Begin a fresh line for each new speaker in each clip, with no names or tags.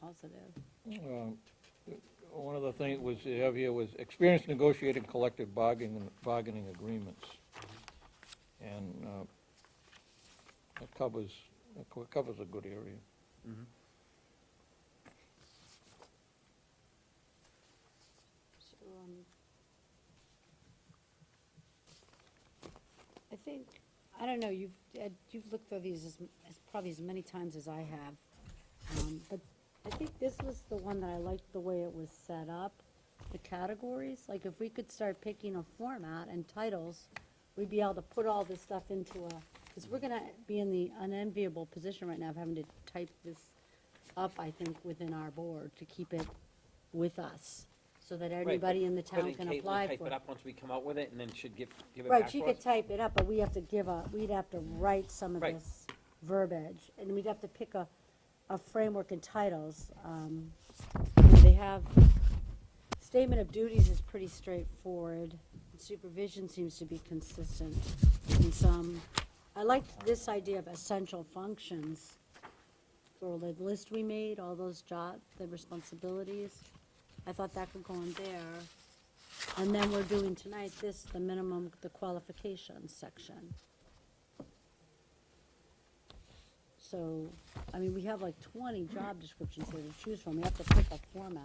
positive.
Um, One of the things was, you have here was experience negotiating collective bargaining, bargaining agreements. And uh, that covers, that co- covers a good area.
So, um, I think, I don't know, you've, Ed, you've looked through these as, m- as probably as many times as I have. Um, but I think this was the one that I liked the way it was set up, the categories. Like if we could start picking a format and titles, we'd be able to put all this stuff into a, because we're gonna be in the unenviable position right now of having to type this up, I think, within our board to keep it with us, so that
Right, but
everybody in the town
couldn't
can
Caitlin
apply for it.
Type it up once we come out with it and then should give, give it back
Right, she
to
could
us?
type it up, but we have to give a, we'd have to write some of
Right.
this verbiage, and we'd have to pick a, a framework and titles. Um, you know, They have, statement of duties is pretty straightforward, supervision seems to be consistent in some. I liked this idea of essential functions, or the list we made, all those job, the responsibilities. I thought that could go in there. And then we're doing tonight this, the minimum, the qualifications section. So, I mean, we have like twenty job descriptions here to choose from, we have to pick a format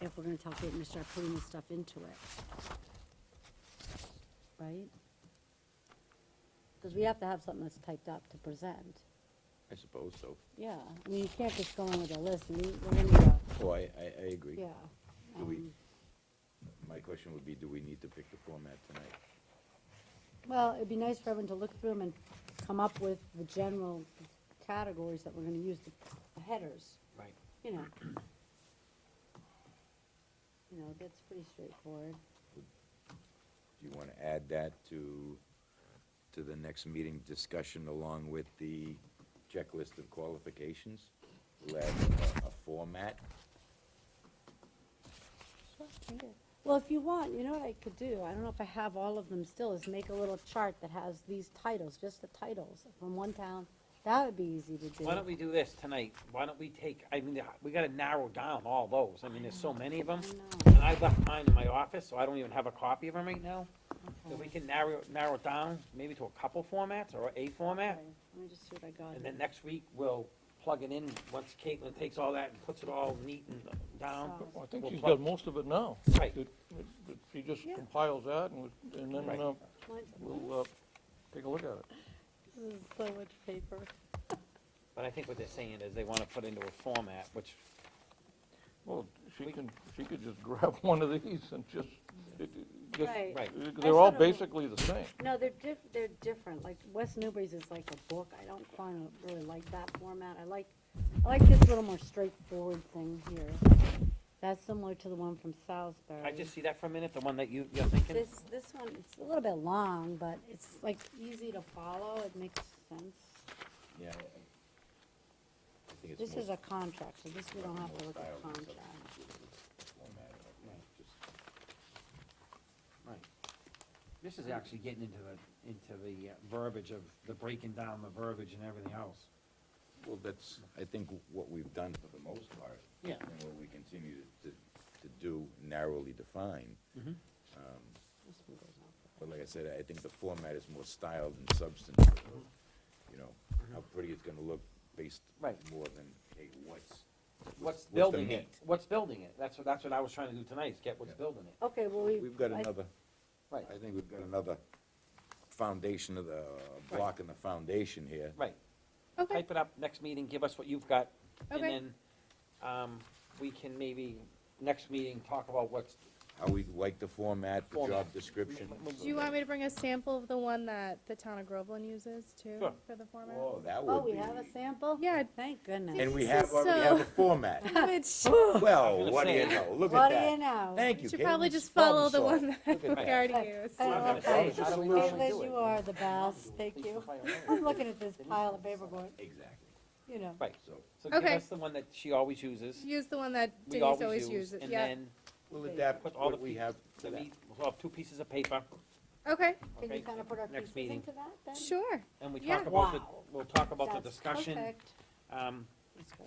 if we're gonna tell Caitlin to start putting this stuff into it. Right? Because we have to have something that's typed up to present,
I suppose so.
yeah, I mean, you can't just go in with a list, and we- we're gonna, go,
Oh, I, I, I agree.
yeah.
Do we,
um,
my question would be, do we need to pick the format tonight?
Well, it'd be nice for everyone to look through them and come up with the general categories that we're gonna use, the headers,
Right.
you know. You know, that's pretty straightforward.
Do you wanna add that to, to the next meeting discussion along with the checklist of qualifications? We'll add a, a format?
Well, if you want, you know what I could do, I don't know if I have all of them still, is make a little chart that has these titles, just the titles from one town. That would be easy to do.
Why don't we do this tonight? Why don't we take, I mean, we gotta narrow down all those. I mean, there's so many of
I
them.
know,
And I left mine in my office, so I don't even have a copy of them right now. So we
okay.
can narrow, narrow it down maybe to a couple formats or a format.
Okay, Let me just see what I got.
And
here.
then next week, we'll plug it in, once Caitlin takes all that and puts it all neat and down.
Solid.
Well, I think
we'll
she's
plug-
got most of it now.
Right.
It- it- it- She just
Yeah.
compiles that and, and then
Right.
uh,
Mine's-
we'll, uh, take a look at it.
This is so much paper.
But I think what they're saying is they wanna put into a format, which
Well, she can, she could just grab one of these and just, it- it- just,
Right.
Right.
it-
I
they're all
sort of-
basically the same.
No, they're diff, they're different, like West Newbury's is like a book, I don't find, I really like that format, I like, I like this little more straightforward thing here. That's similar to the one from Salisbury.
I just see that for a minute, the one that you, you're thinking?
This, this one, it's a little bit long, but it's like easy to follow, it makes sense.
Yeah.
This is a contract, so this we don't have to look at contract.
Right. This is actually getting into the, into the uh, verbiage of, the breaking down the verbiage and everything else.
Well, that's, I think, what we've done for the most part.
Yeah.
And what we continue to, to do narrowly define.
Mhm.
Um,
This one goes off.
But like I said, I think the format is more style than substance, you know, how pretty it's gonna look based
Right.
more than, hey, what's,
What's
the
building it,
meat?
what's building it, that's what, that's what I was trying to do tonight, is get what's
Yeah.
building it.
Okay, well, we.
We've got
I-
another,
Right,
I think we've got another foundation of the, uh, block in the foundation here.
right.
Okay,
Type it up, next meeting, give us what you've got, and
Okay.
then, um, we can maybe, next meeting, talk about what's,
How we like the format, the job
Format.
description.
Do you want me to bring a sample of the one that the town of Groveland uses too
Sure.
for the format?
Oh, that
oh,
would
we
be.
have a sample?
Yeah.
Thank goodness.
And we
This
have,
is
already
so-
have a format.
Which
Well,
gonna
what do you
say.
know, look
What
at
do you
that.
know?
Thank you,
should probably
Caitlin.
just follow
Problem
the
solved.
one that
Look at
we
that.
already used.
I
I'm
love
gonna
that.
say, how do we usually do
Liz,
it?
you are the best, thank you. I'm looking at this pile of paper going,
Exactly,
you know.
Right,
so,
so give
Okay.
us the one that she always uses,
Use the one that
we
Denise
always
always uses,
use, and
yeah.
then,
we'll
Put
adapt
all the
what we
pieces
have
the
to that.
meat, we'll have two pieces of paper,
Okay,
Can
okay?
you kind of put our
next
pieces
meeting.
into that then?
sure.
And we
Yeah.
talk about the,
Wow.
we'll talk about the
That's
discussion.
perfect.
Um,
That's good.